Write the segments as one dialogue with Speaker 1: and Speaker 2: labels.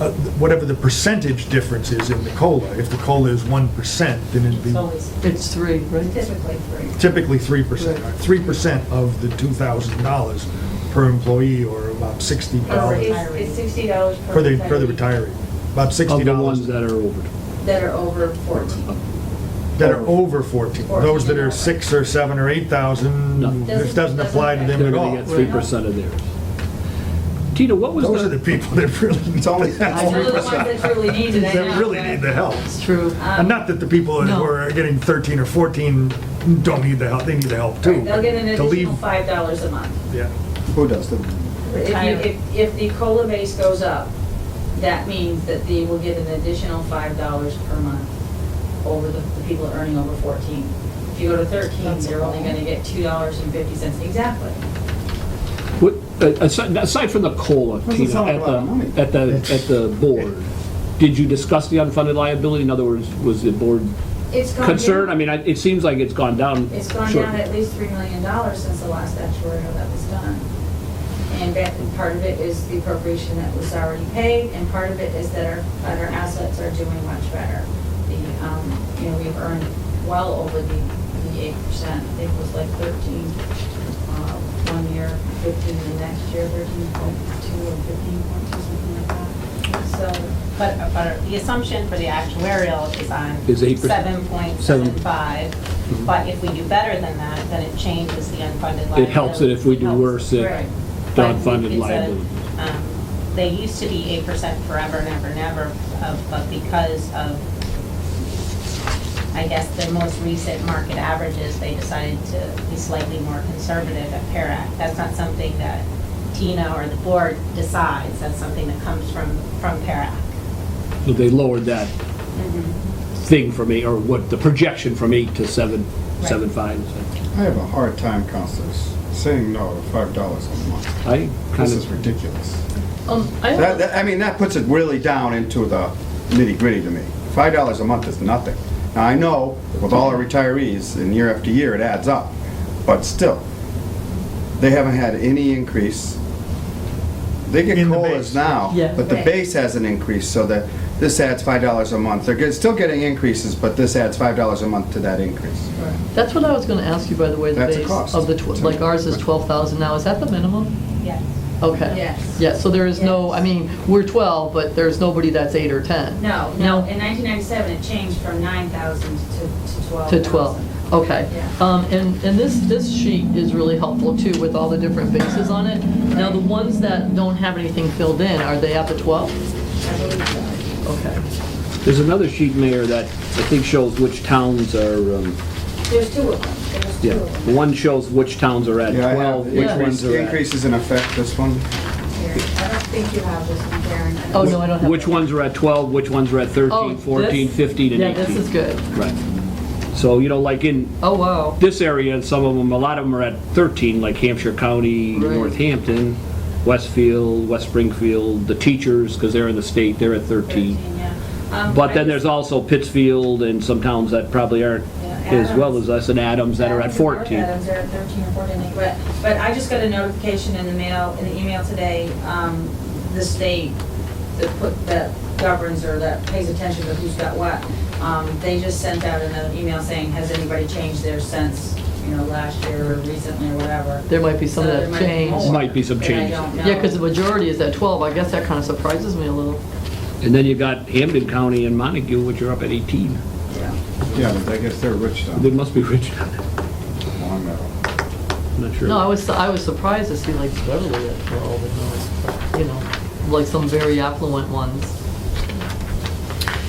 Speaker 1: uh, whatever the percentage difference is in the COLA. If the COLA is 1%, then it'd
Speaker 2: It's
Speaker 1: be
Speaker 2: always
Speaker 3: It's three, right?
Speaker 2: typically three.
Speaker 1: typically 3%.
Speaker 3: Right.
Speaker 1: 3% of the $2,000 per employee, or about $60,
Speaker 2: Oh, It's it's sixty dollars per.
Speaker 1: for the, for the
Speaker 2: retiree
Speaker 1: retiree, about
Speaker 4: Of the ones
Speaker 1: $60
Speaker 4: that are over.
Speaker 2: That are over fourteen.
Speaker 1: that are over 14. Those that are 6 or 7 or 8,000,
Speaker 4: No.
Speaker 1: this doesn't apply to them
Speaker 4: They're
Speaker 1: at
Speaker 4: gonna
Speaker 1: all.
Speaker 4: get three percent of theirs. Tina, what was
Speaker 1: Those are the
Speaker 4: the,
Speaker 1: people that really need
Speaker 2: Those are the ones
Speaker 1: the
Speaker 2: that truly need it, I know.
Speaker 1: that really need the help.
Speaker 3: It's true.
Speaker 1: And not that the people who
Speaker 3: No.
Speaker 1: are getting 13 or 14 don't need the help, they need the help too.
Speaker 2: They'll get an
Speaker 1: To leave-
Speaker 2: additional five dollars a month.
Speaker 1: Yeah,
Speaker 5: Who does them?
Speaker 2: If you, if, if the COLA base goes up, that means that they will get an additional five dollars per month over the, the people earning over fourteen. If you go to thirteen, they're only gonna get two dollars and fifty cents, exactly.
Speaker 4: what- a- aside aside from the COLA,
Speaker 5: Doesn't
Speaker 4: Tina,
Speaker 5: sound like
Speaker 4: at
Speaker 5: a lot of money.
Speaker 4: the, at the, at the board, did you discuss the unfunded liability? In other words, was the board
Speaker 2: It's gone
Speaker 4: concerned? I
Speaker 2: down-
Speaker 4: mean, I- it seems like it's gone down.
Speaker 2: It's gone
Speaker 4: short-
Speaker 2: down at least three million dollars since the last actuarial that was done. And that, and part of it is the appropriation that was already paid, and part of it is that our, that our assets are doing much better. The, um, you know, we've earned well over the, the eight percent, I think it was like thirteen, uh, one year, fifteen the next year, thirteen point two or fifteen point two, something like that. So,
Speaker 6: But, but the assumption for the actuarial is on
Speaker 4: Is 8%.
Speaker 6: seven point seven five. But if we do better than that, then it changes the unfunded liability.
Speaker 4: It helps it if we do
Speaker 6: Helps.
Speaker 4: worse
Speaker 2: Right.
Speaker 4: at the
Speaker 6: But
Speaker 4: unfunded
Speaker 6: it's a-
Speaker 4: liability.
Speaker 6: um, They used to be eight percent forever and ever and ever, uh, but because of, I guess, the most recent market averages, they decided to be slightly more conservative at PARAC. That's not something that Tina or the board decides, that's something that comes from, from PARAC.
Speaker 4: So they lowered that
Speaker 2: Mm-hmm.
Speaker 4: thing from eight, or what, the projection from eight to seven,
Speaker 6: Right.
Speaker 4: seven five.
Speaker 5: I have a hard time, counselors, saying no to five dollars a month.
Speaker 4: I kind
Speaker 5: This is
Speaker 4: of,
Speaker 5: ridiculous.
Speaker 3: Um, I
Speaker 5: That,
Speaker 3: have,
Speaker 5: that, I mean, that puts it really down into the nitty gritty to me. Five dollars a month is nothing. Now, I know with all our retirees, and year after year, it adds up, but still, they haven't had any increase. They get
Speaker 1: In the
Speaker 5: COLAs
Speaker 1: base.
Speaker 5: now,
Speaker 3: Yeah.
Speaker 5: but the
Speaker 2: Right.
Speaker 5: base hasn't increased, so that this adds five dollars a month. They're get- still getting increases, but this adds five dollars a month to that increase.
Speaker 3: that's what I was gonna ask you, by the way, the
Speaker 5: That's a
Speaker 3: base
Speaker 5: cost.
Speaker 3: of the, tw- like ours is 12,000 now, is that the minimum?
Speaker 6: Yes.
Speaker 3: Okay.
Speaker 2: Yes.
Speaker 3: Yeah, so there is no, I mean, we're 12, but there's nobody that's eight or 10?
Speaker 2: no, no, in nineteen ninety-seven, it changed from nine thousand to, to twelve
Speaker 3: To
Speaker 2: thousand.
Speaker 3: 12, okay.
Speaker 2: Yeah.
Speaker 3: Um, And, and this, this sheet is really helpful too, with all the different bases on it. Now, the ones that don't have anything filled in, are they at the 12?
Speaker 2: I believe so.
Speaker 3: Okay.
Speaker 4: there's another sheet, Mayor, that I think shows which towns are, um,
Speaker 2: There's two of them, there's
Speaker 4: yeah.
Speaker 2: two of
Speaker 4: The
Speaker 2: them.
Speaker 4: One shows which towns are at
Speaker 5: Yeah, I have
Speaker 4: 12, which
Speaker 3: Yeah.
Speaker 4: ones are at...
Speaker 5: Increases in effect, this one.
Speaker 2: Here, I don't think you have this one, Karen. I don't
Speaker 3: Oh, no, I don't have.
Speaker 4: Which
Speaker 3: that.
Speaker 4: ones are at 12, which ones are at 13,
Speaker 3: Oh,
Speaker 4: 14,
Speaker 3: this-
Speaker 4: 15, and 18.
Speaker 3: Yeah, this is good.
Speaker 4: Right. So, you know, like in
Speaker 3: Oh, wow.
Speaker 4: this area, some of them, a lot of them are at 13, like Hampshire County,
Speaker 3: Right.
Speaker 4: Northampton, Westfield, West Springfield, the teachers, because they're in the state, they're at 13.
Speaker 2: Thirteen, yeah. Um,
Speaker 4: But
Speaker 2: I
Speaker 4: then
Speaker 2: just-
Speaker 4: there's also Pittsfield and some towns that probably aren't
Speaker 2: Yeah,
Speaker 4: as well
Speaker 2: Adams.
Speaker 4: as us, and Adams that are at
Speaker 2: Adams and North
Speaker 4: 14.
Speaker 2: Adams are at 13 or 14, but, but I just got a notification in the mail, in the email today, um, the state that put, that governs or that pays attention to who's got what. Um, they just sent out another email saying, has anybody changed theirs since, you know, last year or recently or whatever?
Speaker 3: There might be some
Speaker 2: So
Speaker 3: that
Speaker 2: there might be
Speaker 3: changed.
Speaker 2: more
Speaker 4: Might be some
Speaker 2: that I
Speaker 4: changes.
Speaker 2: don't
Speaker 3: Yeah, because the
Speaker 2: know.
Speaker 3: majority is at 12, I guess that kind of surprises me a little.
Speaker 4: And then you got Hampden County and Montague, which are up at 18.
Speaker 2: Yeah.
Speaker 5: Yeah, but I guess they're rich now.
Speaker 4: They must be rich down there.
Speaker 5: Long Meadow.
Speaker 4: I'm not sure.
Speaker 3: No, I was, I was surprised to see like Beverly at 12, and, uh, you know, like some very affluent ones.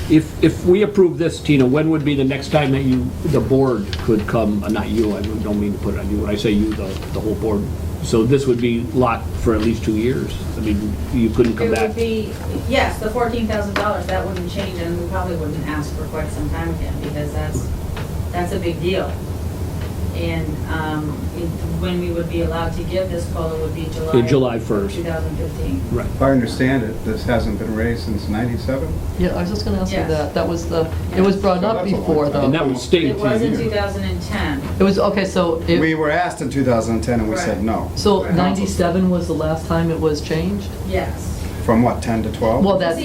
Speaker 4: If, if we approve this, Tina, when would be the next time that you, the board could come, uh, not you, I don't mean to put it on you, when I say you, the, the whole board. So this would be locked for at least two years. I mean, you couldn't
Speaker 2: It
Speaker 4: come
Speaker 2: would
Speaker 4: back.
Speaker 2: be, yes, the fourteen thousand dollars, that wouldn't change, and we probably wouldn't ask for quite some time again, because that's, that's a big deal. And, um, it- when we would be allowed to give this COLA would be July.
Speaker 4: In July 1st.
Speaker 2: Two thousand fifteen.
Speaker 4: Right.
Speaker 5: If I understand it, this hasn't been raised since 97?
Speaker 3: Yeah, I was just gonna ask you
Speaker 2: Yes.
Speaker 3: that, that was the, it was brought
Speaker 5: So
Speaker 3: up
Speaker 5: that's a long
Speaker 3: before
Speaker 5: time.
Speaker 4: And
Speaker 3: though.
Speaker 4: that was
Speaker 2: It
Speaker 4: state.
Speaker 2: was in
Speaker 5: years.
Speaker 2: two thousand and ten,
Speaker 3: It was, okay, so,
Speaker 5: We
Speaker 3: it
Speaker 5: were asked in 2010 and we said
Speaker 2: Right.
Speaker 5: no.
Speaker 3: so 97 was the last time it was changed?
Speaker 2: yes.
Speaker 5: From what, 10 to 12?
Speaker 3: Well, that's